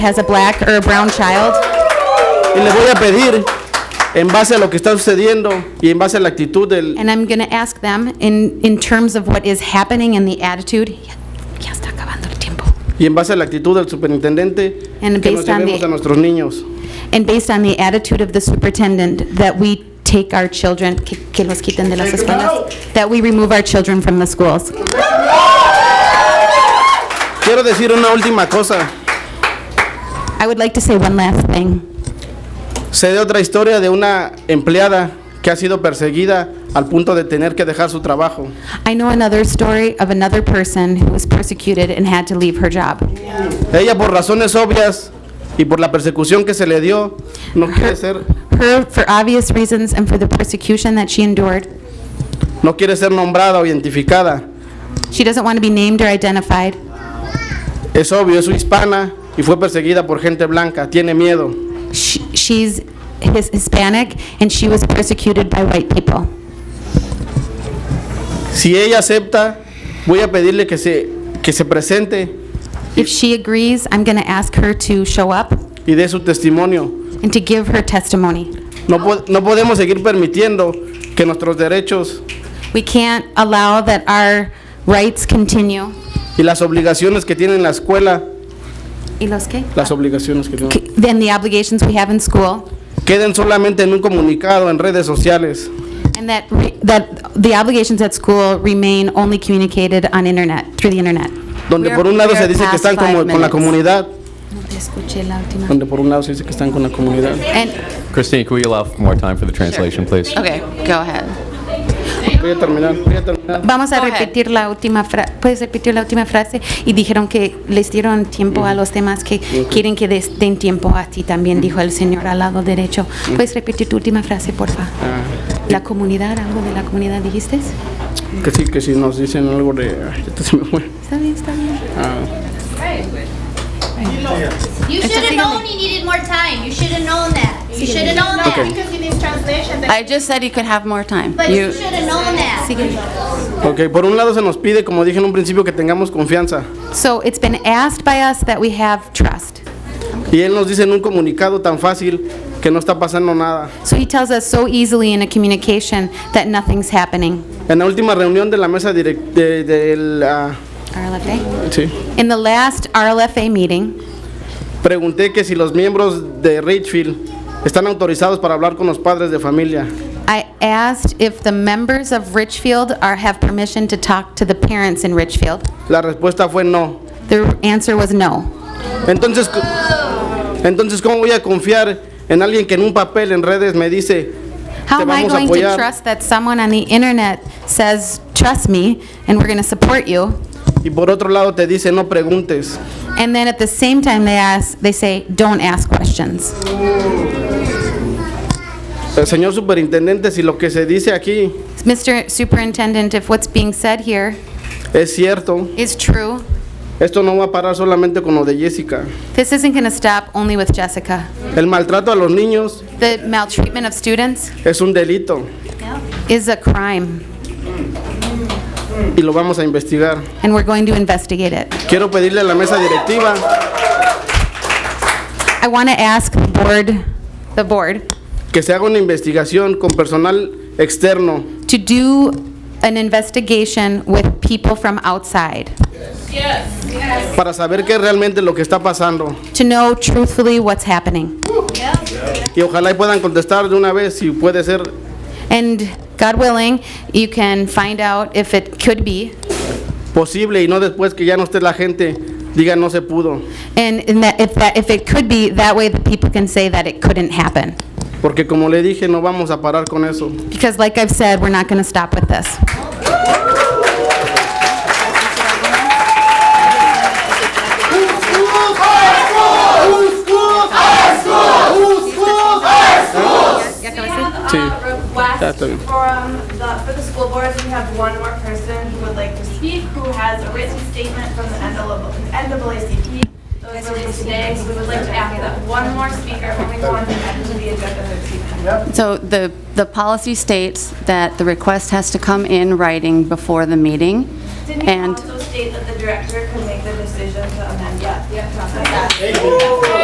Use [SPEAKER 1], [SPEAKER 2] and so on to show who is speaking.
[SPEAKER 1] has a black or a brown child.
[SPEAKER 2] Y les voy a pedir, en base a lo que está sucediendo y en base a la actitud del,
[SPEAKER 1] And I'm going to ask them in, in terms of what is happening and the attitude. Ya, ya está acabando el tiempo.
[SPEAKER 2] y en base a la actitud del superintendente,
[SPEAKER 1] And
[SPEAKER 2] que nos
[SPEAKER 1] based on
[SPEAKER 2] llevemos
[SPEAKER 1] the-
[SPEAKER 2] a nuestros niños.
[SPEAKER 1] And based on the attitude of the superintendent, that we take our children, que, que los quiten de las escuelas, that we remove our children from the schools.
[SPEAKER 2] Quiero decir una última cosa.
[SPEAKER 1] I would like to say one last thing.
[SPEAKER 2] Sé de otra historia de una empleada que ha sido perseguida al punto de tener que dejar su trabajo.
[SPEAKER 1] I know another story of another person who was persecuted and had to leave her job.
[SPEAKER 2] Ella por razones obvias y por la persecución que se le dio, no quiere ser,
[SPEAKER 1] Her, for obvious reasons and for the persecution that she endured,
[SPEAKER 2] no quiere ser nombrada o identificada.
[SPEAKER 1] she doesn't want to be named or identified.
[SPEAKER 2] Es obvio, es hispana y fue perseguida por gente blanca, tiene miedo.
[SPEAKER 1] She, she's his Hispanic and she was persecuted by white people.
[SPEAKER 2] Si ella acepta, voy a pedirle que se, que se presente
[SPEAKER 1] If she agrees, I'm going to ask her to show up
[SPEAKER 2] y dé su testimonio.
[SPEAKER 1] and to give her testimony.
[SPEAKER 2] No, po- no podemos seguir permitiendo que nuestros derechos
[SPEAKER 1] We can't allow that our rights continue.
[SPEAKER 2] y las obligaciones que tiene la escuela,
[SPEAKER 1] ¿Y los qué?
[SPEAKER 2] las obligaciones que tiene,
[SPEAKER 1] C- Then the obligations we have in school,
[SPEAKER 2] queden solamente en un comunicado en redes sociales.
[SPEAKER 1] and that, re- that the obligations at school remain only communicated on internet, through the internet.
[SPEAKER 2] Donde
[SPEAKER 1] We are-
[SPEAKER 2] por un lado
[SPEAKER 1] we are
[SPEAKER 2] se dice que
[SPEAKER 1] past
[SPEAKER 2] están como-
[SPEAKER 1] five
[SPEAKER 2] con la
[SPEAKER 1] minutes.
[SPEAKER 2] comunidad, donde por un lado se dice que están con la comunidad.
[SPEAKER 1] And,
[SPEAKER 3] Christine, can we allow more time for the translation, please?
[SPEAKER 4] Okay, go ahead.
[SPEAKER 2] Voy a terminar, voy a terminar.
[SPEAKER 1] vamos a
[SPEAKER 4] Go ahead.
[SPEAKER 1] repetir la última frase, ¿puedes repetir la última frase? Y dijeron que les dieron tiempo a los demás que quieren que des- den tiempo a ti también, dijo el señor al lado derecho. ¿Puedes repetir tu última frase, por favor?
[SPEAKER 2] Ah,
[SPEAKER 1] La comunidad, algo de la comunidad, ¿dijiste?
[SPEAKER 2] Que sí, que si nos dicen algo de... ay, esto se me fue.
[SPEAKER 1] Está bien, está bien.
[SPEAKER 2] Ah,
[SPEAKER 5] You should have known he needed more time. You should have known that. You should have known that.
[SPEAKER 2] Okay.
[SPEAKER 4] I just said you could have more time.
[SPEAKER 5] But you
[SPEAKER 4] You,
[SPEAKER 5] should have known that.
[SPEAKER 2] ok, por un lado se nos pide, como dije en un principio, que tengamos confianza.
[SPEAKER 1] So it's been asked by us that we have trust.
[SPEAKER 2] Y él nos dice en un comunicado tan fácil que no está pasando nada.
[SPEAKER 1] So he tells us so easily in a communication that nothing's happening.
[SPEAKER 2] En la última reunión de la mesa direc- de- del, ah,
[SPEAKER 1] RLFA?
[SPEAKER 2] sí,
[SPEAKER 1] In the last RLFA meeting,
[SPEAKER 2] pregunté que si los miembros de Richfield están autorizados para hablar con los padres de familia.
[SPEAKER 1] I asked if the members of Richfield are, have permission to talk to the parents in Richfield.
[SPEAKER 2] La respuesta fue no.
[SPEAKER 1] The answer was no.
[SPEAKER 2] Entonces, c- entonces ¿cómo voy a confiar en alguien que en un papel en redes me dice,
[SPEAKER 1] How
[SPEAKER 2] te
[SPEAKER 1] am I
[SPEAKER 2] vamos a
[SPEAKER 1] going to
[SPEAKER 2] apoyar?
[SPEAKER 1] trust that someone on the internet says, "Trust me, and we're going to support you,"
[SPEAKER 2] Y por otro lado te dice, no preguntes.
[SPEAKER 1] and then at the same time they ask, they say, "Don't ask questions."
[SPEAKER 2] Eh, Señor superintendente, si lo que se dice aquí
[SPEAKER 1] Mr. Superintendent, if what's being said here
[SPEAKER 2] es cierto,
[SPEAKER 1] is true,
[SPEAKER 2] esto no va a parar solamente con lo de Jessica.
[SPEAKER 1] this isn't going to stop only with Jessica.
[SPEAKER 2] El maltrato a los niños
[SPEAKER 1] The maltreatment of students
[SPEAKER 2] es un delito
[SPEAKER 1] is a crime,
[SPEAKER 2] y lo vamos a investigar.
[SPEAKER 1] and we're going to investigate it.
[SPEAKER 2] Quiero pedirle a la mesa directiva
[SPEAKER 1] I want to ask the board, the board,
[SPEAKER 2] que se haga una investigación con personal externo
[SPEAKER 1] to do an investigation with people from outside,
[SPEAKER 2] para saber qué es realmente lo que está pasando.
[SPEAKER 1] to know truthfully what's happening.
[SPEAKER 2] Y ojalá y puedan contestar de una vez si puede ser
[SPEAKER 1] And God willing, you can find out if it could be,
[SPEAKER 2] posible y no después que ya no esté la gente, diga no se pudo.
[SPEAKER 1] and and that if that, if it could be, that way the people can say that it couldn't happen.
[SPEAKER 2] Porque como le dije, no vamos a parar con eso.
[SPEAKER 1] Because like I've said, we're not going to stop with this.
[SPEAKER 2] Sí.
[SPEAKER 6] request
[SPEAKER 2] Ya está bien.
[SPEAKER 6] from the, for the school boards, we have one more person who would like to speak, who has a written statement from the NAACP that was released today, so we would like to ask that one more speaker when we go on to the end of the agenda this evening.
[SPEAKER 4] so the, the policy states that the request has to come in writing before the meeting.
[SPEAKER 6] Didn't you
[SPEAKER 4] And
[SPEAKER 6] also state state that the director could make the decision to amend that. Yeah.